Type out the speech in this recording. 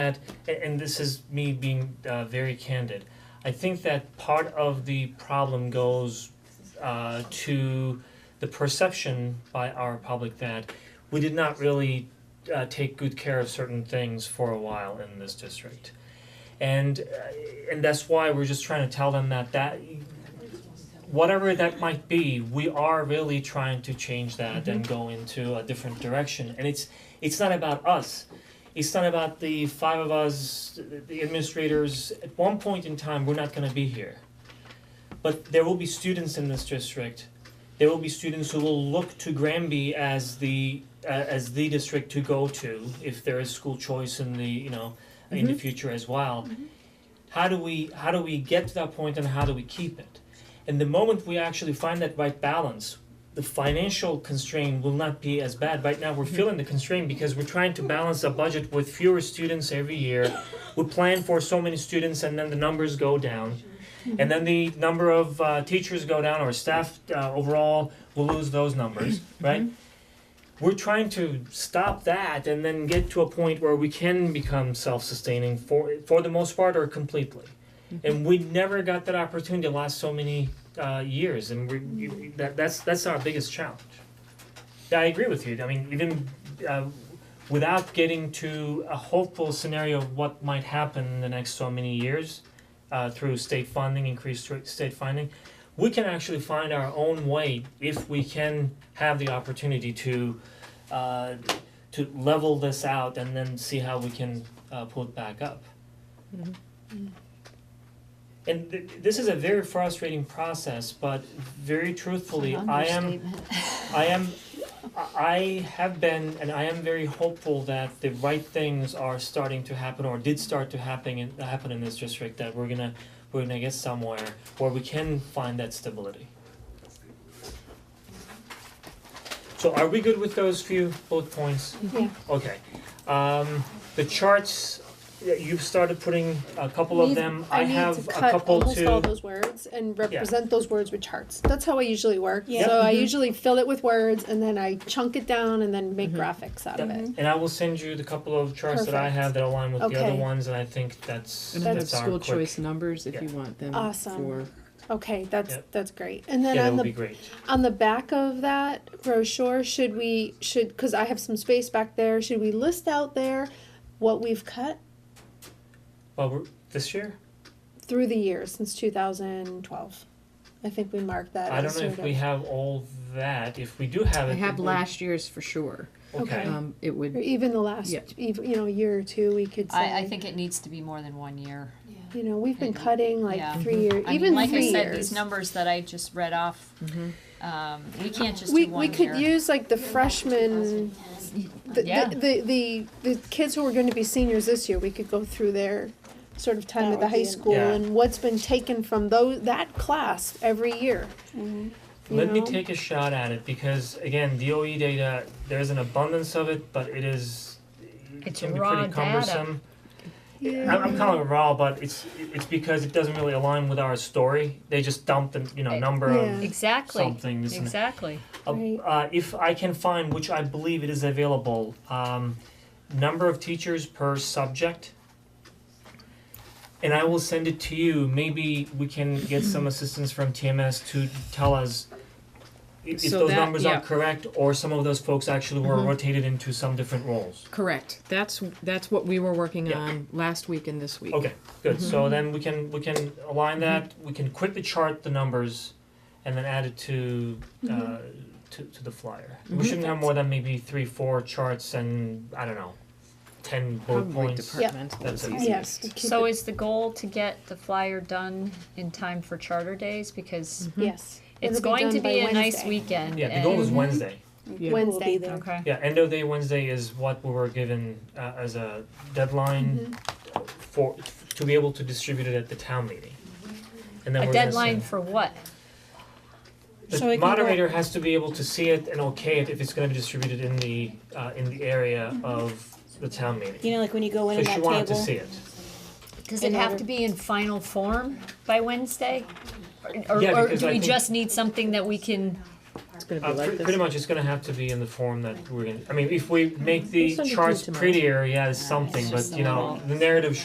that, a- and this is me being uh very candid. I think that part of the problem goes uh to the perception by our public that we did not really uh take good care of certain things for a while in this district. And uh, and that's why we're just trying to tell them that that whatever that might be, we are really trying to change that and go into a different direction. And it's it's not about us. It's not about the five of us, th- the administrators. At one point in time, we're not going to be here. But there will be students in this district. There will be students who will look to Granby as the uh, as the district to go to if there is school choice in the you know in the future as well. How do we how do we get to that point and how do we keep it? And the moment we actually find that right balance, the financial constraint will not be as bad. Right now, we're feeling the constraint because we're trying to balance a budget with fewer students every year. We plan for so many students, and then the numbers go down. And then the number of uh, teachers go down, or staff uh, overall will lose those numbers, right? We're trying to stop that and then get to a point where we can become self-sustaining for for the most part or completely and we never got that opportunity the last so many uh years and we you- that that's that's our biggest challenge. Yeah, I agree with you, I mean, even uh without getting to a hopeful scenario of what might happen in the next so many years uh through state funding, increased stra- state funding, we can actually find our own way if we can have the opportunity to uh to level this out and then see how we can uh pull it back up. And th- this is a very frustrating process, but very truthfully, I am, I am, I- I have been, and I am very hopeful that the right things are starting to happen or did start to happen in, happen in this district, that we're gonna, we're gonna get somewhere where we can find that stability. So are we good with those few bullet points? Yeah. Okay, um, the charts, y- you've started putting a couple of Need- them, I have a couple to. need to cut almost all those words and represent those words with charts. That's how I usually work. Yeah. So Mm-hmm. I usually fill it with words and then I chunk it down and then Mm-hmm. make graphics out of Yeah, it. And I will send you the couple of charts that I have that align with the other Okay. ones, and I think that's, And I have that's our school quick. choice numbers if you Yeah. want them Awesome. for, Okay, that's Yep. that's great. And then Yeah, that on would be the great. on the back of that brochure, should we should because I have some space back there, should we list out there what we've cut Well, we're, this year, through the years since 2012? I think we marked that. I as don't know if sort of- we have all that, if we do have I it, have we- last year's for sure. Okay, Okay. Um, it or would, even the last Yeah. ev you know year or two we could say I, I think it needs to be more than one year. you know we've been Mhm. cutting like Yeah. three years I even mean, like three I said, years these numbers that I just read off, Mm-hmm. um, we can't just we, do we one could year. use like the freshmen the, Yeah. the, the, the the kids who are going to be seniors this year we could go through their sort of time That at the would high be- school Yeah. and what's been taken from those that class every year Mm-hmm. you let me know? take a shot at it, because again, DOE data, there's an abundance of it, but it is, it It's can be raw pretty data. cumbersome. yeah. I'm, I'm calling it raw, but it's, it's because it doesn't really align with our story, they just dumped the, you know, It- number of Yeah. Exactly. something, this and that. Exactly. Uh, Right. uh, if I can find, which I believe it is available, um, number of teachers per subject. And I will send it to you, maybe we can get some assistance from TMS to tell us i- if So those that- numbers yeah. are correct, or some of those folks actually were rotated into some different roles. correct, that's, that's what we were working Yeah. on last week and this week. Okay, good, Mm-hmm. so then we can, we can align that, we can quickly chart the numbers and then add it to uh Mm-hmm. to to the flyer. We shouldn't have more than maybe three, four charts and, I don't know, ten bullet Probably points. departmental That's is it. yes easiest. we keep So it- is the goal to get the flyer done in time for charter days because Mm. yes it's It'll going done to by be a nice Wednesday. weekend. Yeah, the goal is and- Mm-hmm. Wednesday. Yeah. Wednesday Okay. Yeah, end of day Wednesday is what we were given uh as a deadline Mm-hmm. for to be able to distribute it at the town meeting. And then Mm-hmm. A we're gonna deadline send- for what? So it The can go- moderator has to be able to see it and okay it if it's gonna be distributed in the uh in the area of the town meeting. Mm-hmm. You know, like when you go in So at she that wanted to table. see it. Does it In have order- to be in final form by Wednesday? Or, Yeah, or because do I we think- just need something that we can it's gonna Uh, be like pre- pretty this. much, it's gonna have to be in the form that we're gonna, I mean, if we make Mm-hmm. We'll the send it to you charts tomorrow. prettier, yeah, it's Yeah, it's something, just but the you know, little- the narrative